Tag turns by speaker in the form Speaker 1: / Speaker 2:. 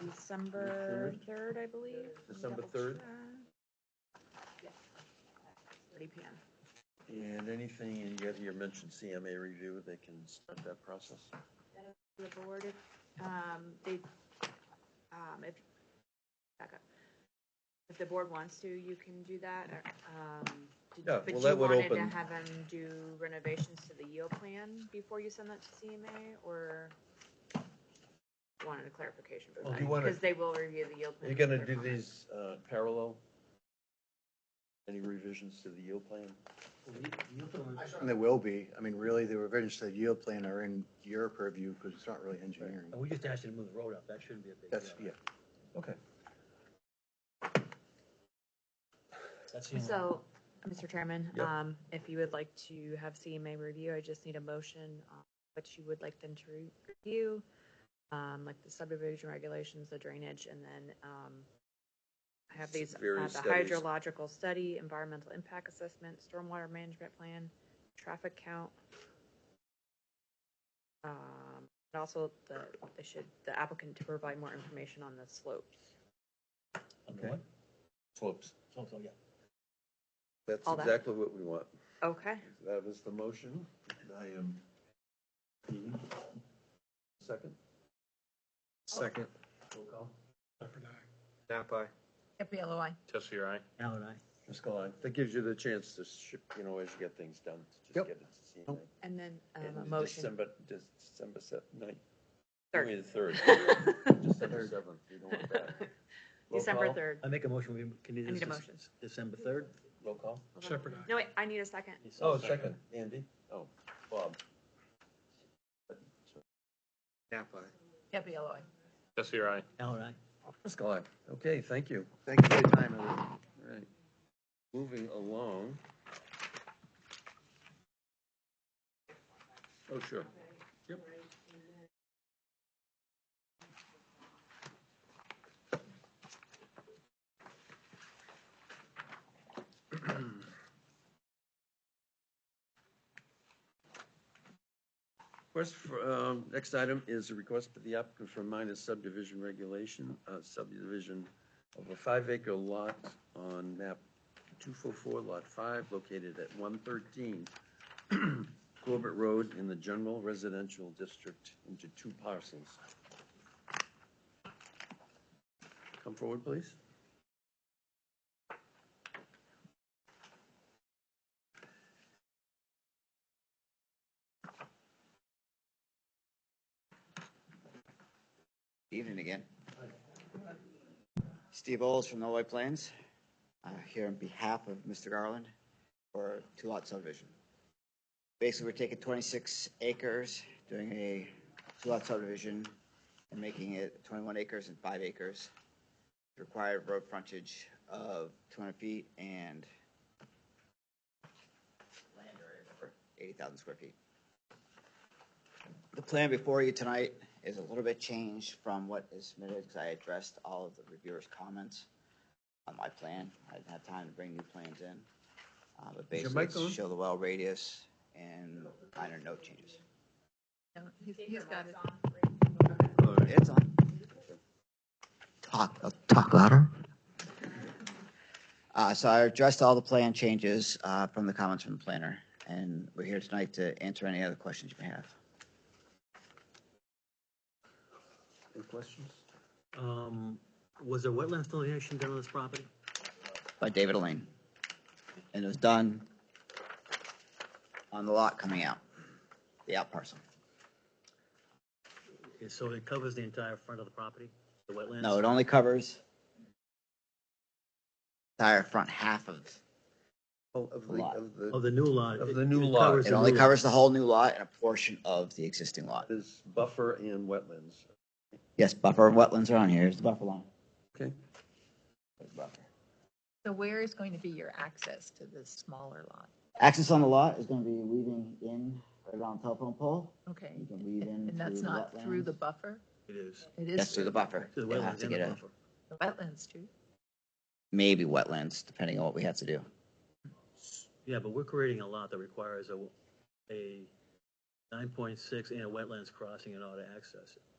Speaker 1: December third, I believe. Let me
Speaker 2: December
Speaker 1: double
Speaker 2: 3rd.
Speaker 1: check. Three P M.
Speaker 2: And anything you got here mentioned CMA review, they can start that process.
Speaker 1: The board, if, um, they, um, if, back up. If the board wants to, you can do that, or, um. did-
Speaker 2: Yeah,
Speaker 1: but
Speaker 2: well,
Speaker 1: you
Speaker 2: that would
Speaker 1: wanted
Speaker 2: open-
Speaker 1: To have them do renovations to the yield plan before you send that to CMA, or wanted a clarification
Speaker 2: Well,
Speaker 1: from
Speaker 2: do
Speaker 1: that?
Speaker 2: you wanna-
Speaker 1: Because they will review the yield
Speaker 2: Are
Speaker 1: plan.
Speaker 2: you gonna
Speaker 1: for
Speaker 2: do
Speaker 1: comment.
Speaker 2: these, uh, parallel? Any revisions to the yield plan?
Speaker 3: There will be. I mean, really, the revisions to the yield plan are in your purview because it's not really engineering.
Speaker 4: And we just asked you to move the road up, that shouldn't be a big deal.
Speaker 3: That's, yeah.
Speaker 2: Okay.
Speaker 4: That's the only-
Speaker 1: So, Mr. Chairman,
Speaker 2: Mm. Yep.
Speaker 1: um, if you would like to have CMA review, I just need a motion on what you would like them to re- review, um, like the subdivision regulations, the drainage, and then, um, I have these, uh,
Speaker 2: Various
Speaker 1: the
Speaker 2: studies.
Speaker 1: hydrological study, environmental impact assessment, stormwater management plan, traffic count. Um, and also the, they should, the applicant to provide more information on the slopes.
Speaker 4: Under what?
Speaker 2: Slopes.
Speaker 4: So, so, yeah.
Speaker 2: That's
Speaker 1: All that.
Speaker 2: exactly what we want.
Speaker 1: Okay,
Speaker 2: That is the motion. I am. Second? Second.
Speaker 4: Roll call.
Speaker 5: Napa,
Speaker 6: Capello, I.
Speaker 5: Tessie, aye.
Speaker 4: Allen, aye.
Speaker 2: Ms. Gulli, that gives you the chance to ship, you know, as you get things done, to
Speaker 3: Yep.
Speaker 2: just get it to CMA.
Speaker 1: and then, um, a
Speaker 2: And
Speaker 1: motion.
Speaker 2: December, December seventh, ninth.
Speaker 1: Third.
Speaker 2: Wait, Third. December seventh, you don't want that. Roll
Speaker 1: December
Speaker 2: call?
Speaker 1: third.
Speaker 4: I make a motion, we can do
Speaker 1: I
Speaker 4: this.
Speaker 1: need a
Speaker 4: Dec-
Speaker 1: motion.
Speaker 4: December third.
Speaker 2: Roll call?
Speaker 5: Shepherd, aye.
Speaker 1: No, wait, I need a second.
Speaker 2: Oh, second. Andy? Oh, Bob.
Speaker 5: Napa,
Speaker 6: Capello, I.
Speaker 5: Tessie, aye.
Speaker 4: Allen, aye.
Speaker 2: Ms. Gulli, okay, thank you.
Speaker 3: Thank you for your time, everyone.
Speaker 2: All right. Moving along. Oh, sure. Yep. Request for, um, next item is a request for the applicant for minor subdivision regulation, uh, subdivision of a five-acre lot on map 244, lot 5, located at 113 Corbett Road in the general residential district into two parcels. Come forward, please.
Speaker 7: Evening again. Steve Oles from the White Plains, uh, here on behalf of Mr. Garland for two lot subdivision. Basically, we're taking twenty-six acres, doing a two lot subdivision and making it twenty-one acres and five acres. Required road frontage of two hundred feet and land area eighty thousand square feet. The plan before you tonight is a little bit changed from what is submitted because I addressed all of the reviewers' comments on my plan. I didn't have time to bring new plans in. Uh, But
Speaker 2: Is your
Speaker 7: basically,
Speaker 2: mic on?
Speaker 7: it's show the well radius and minor note changes.
Speaker 6: No, he's, he's got it.
Speaker 2: All right.
Speaker 7: It's on. Talk, uh, talk louder. Uh, so I addressed all the plan changes, uh, from the comments from the planner, and we're here tonight to answer any other questions you may have.
Speaker 2: Any questions?
Speaker 4: Um, was there wetlands delineation done on this property?
Speaker 7: by David Elaine. And it was done on the lot coming out, the out parcel.
Speaker 4: Okay, So it covers the entire front of the property, the wetlands?
Speaker 7: No, it only covers entire front half of,
Speaker 2: Of
Speaker 7: the- Lot.
Speaker 2: of the.
Speaker 4: Of the new lot?
Speaker 2: Of
Speaker 4: it-
Speaker 2: the new
Speaker 4: it
Speaker 2: lot.
Speaker 4: covers
Speaker 7: it
Speaker 4: the
Speaker 7: only
Speaker 4: new lot.
Speaker 7: covers the whole new lot and a portion of the existing lot.
Speaker 2: Is buffer and wetlands,
Speaker 7: Yes, buffer and wetlands are on here, here's the buffer line.
Speaker 2: okay?
Speaker 7: There's the buffer.
Speaker 6: So where is going to be your access to this smaller lot?
Speaker 7: Access on the lot is gonna be weaving in right around telephone pole.
Speaker 6: Okay.
Speaker 7: You can weave in
Speaker 6: And that's
Speaker 7: through
Speaker 6: not through the
Speaker 7: wetlands.
Speaker 6: buffer?
Speaker 4: It is,
Speaker 6: It
Speaker 7: Yes,
Speaker 6: is
Speaker 7: through the buffer.
Speaker 4: to the
Speaker 7: You'll have
Speaker 4: wetlands
Speaker 7: to
Speaker 4: and
Speaker 7: get
Speaker 4: the
Speaker 7: a,
Speaker 4: buffer.
Speaker 6: the wetlands too.
Speaker 7: maybe wetlands, depending on what we have to do.
Speaker 4: Yeah, but we're creating a lot that requires a, a nine point six and a wetlands crossing in order to access it.